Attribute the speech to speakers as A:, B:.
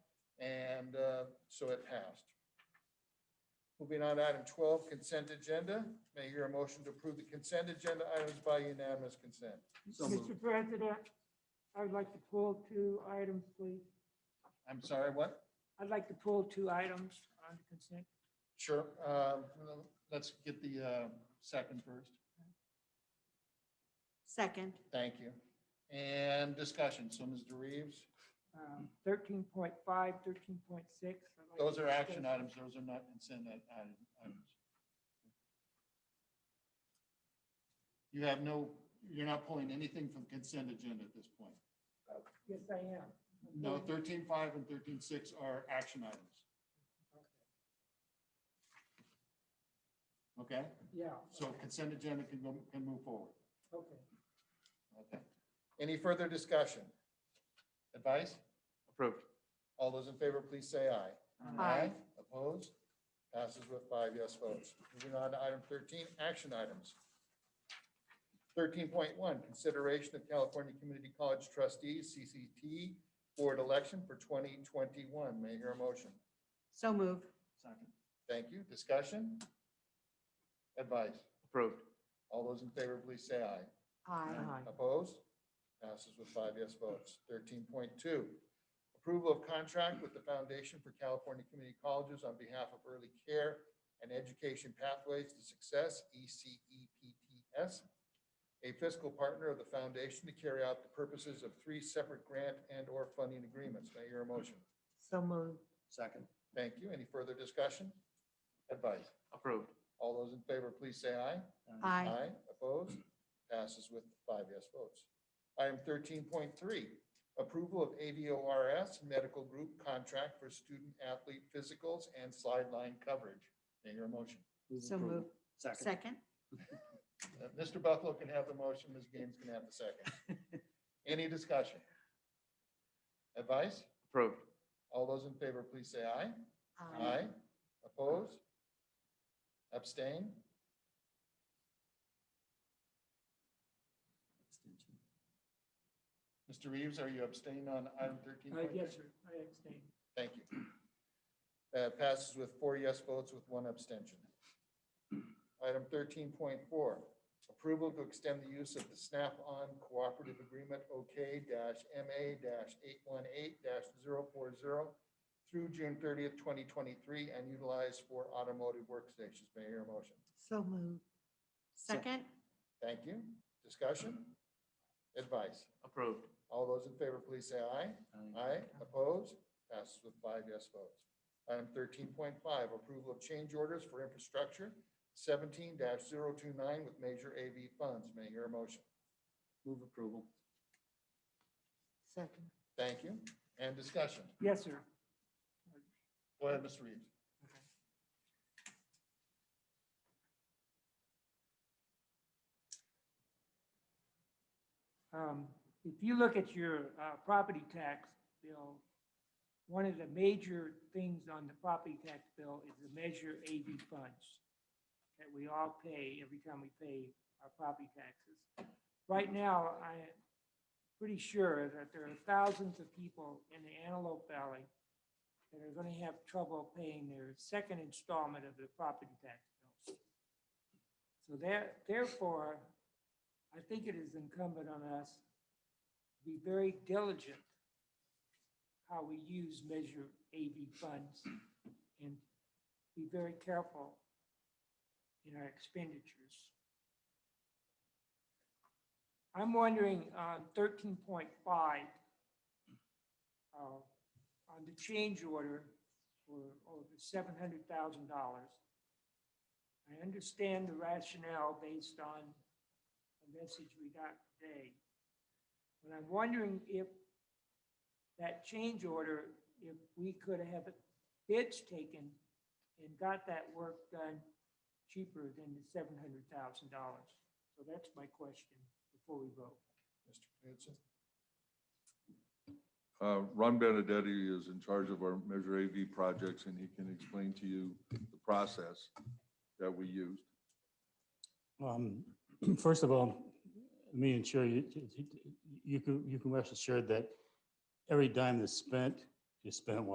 A: and uh, so it passed. Moving on, to item twelve, consent agenda. May I hear a motion to approve the consent agenda items by unanimous consent?
B: So
C: Mr. President, I would like to pull two items, please.
A: I'm sorry, what?
C: I'd like to pull two items on the consent.
A: Sure. uh, Let's get the uh, second first.
D: Second.
A: Thank you. And discussion. So Mr. Reeves,
C: um, 13.5, 13.6. I'd like
A: those
C: to
A: are action
C: discuss-
A: items. Those are not consent i- item- items. You have no, you're not pulling anything from consent agenda at this point.
C: Yes, I am.
A: No, thirteen five and thirteen six are action items. Okay,
C: Yeah,
A: so consent agenda can go, can move forward.
C: okay.
A: Okay. Any further discussion? Advice?
B: Approved.
A: All those in favor, please say aye.
D: Aye.
A: Opposed? Passes with five yes votes. Moving on to item thirteen, action items. Thirteen point one, consideration of California Community College Trustees, CCT, board election for twenty twenty-one. May I hear a motion?
D: So moved.
B: Second.
A: Thank you. Discussion? Advice?
B: Approved.
A: All those in favor, please say aye.
D: Aye.
A: Opposed? Passes with five yes votes. Thirteen point two, approval of contract with the Foundation for California Community Colleges on behalf of Early Care and Education Pathways to Success, E ECEPTS, a fiscal partner of the foundation to carry out the purposes of three separate grant and/or funding agreements. May I hear a motion?
D: So moved.
B: Second.
A: Thank you. Any further discussion? Advice?
B: Approved.
A: All those in favor, please say aye.
D: Aye.
A: Opposed? Passes with five yes votes. Item thirteen point three, approval of AVORS medical group contract for student athlete physicals and sideline coverage. May I hear a motion?
B: Move
D: So
B: approval.
D: moved.
B: Second.
D: Second.
A: Uh, Mr. Buffalo can have the motion, Ms. Gaines can have the second. Any discussion? Advice?
B: Approved.
A: All those in favor, please say aye.
D: Aye.
A: Aye. Opposed? Abstain?
B: Extension.
A: Mr. Reeves, are you abstaining on item thirteen?
C: Uh, Yes, sir, I abstain.
A: Thank you. Uh, Passes with four yes votes with one abstention. Item thirteen point four, approval to extend the use of the Snap-on Cooperative Agreement OK MA eight one eight 40 through June thirtieth, twenty twenty-three, and utilize for automotive workstations. May I hear a motion?
D: So moved. Second.
A: Thank you. Discussion? Advice?
B: Approved.
A: All those in favor, please say aye. Aye, opposed, passes with five yes votes. Item thirteen point five, approval of change orders for infrastructure seventeen 29 with major AV funds. May I hear a motion?
B: Move approval.
D: Second.
A: Thank you. And discussion.
C: Yes, sir.
A: Go ahead, Mr. Reeves.
C: Um, If you look at your uh, property tax bill, one of the major things on the property tax bill is the Measure AV funds that we all pay every time we pay our property taxes. Right now, I'm pretty sure that there are thousands of people in the Antelope Valley that are going to have trouble paying their second installment of their property tax bills. So there, therefore, I think it is incumbent on us to be very diligent how we use Measure AV funds and be very careful in our expenditures. I'm wondering on thirteen point five, uh, on the change order for over seven hundred thousand dollars. I understand the rationale based on a message we got today. But I'm wondering if that change order, if we could have bids taken and got that work done cheaper than the seven hundred thousand dollars. So that's my question before we vote.
A: Mr. Knudsen.
E: Uh, Ron Benedetti is in charge of our Measure AV projects, and he can explain to you the process that we used.
F: Um, First of all, let me ensure you, you- you can, you can rest assured that every dime that's spent is spent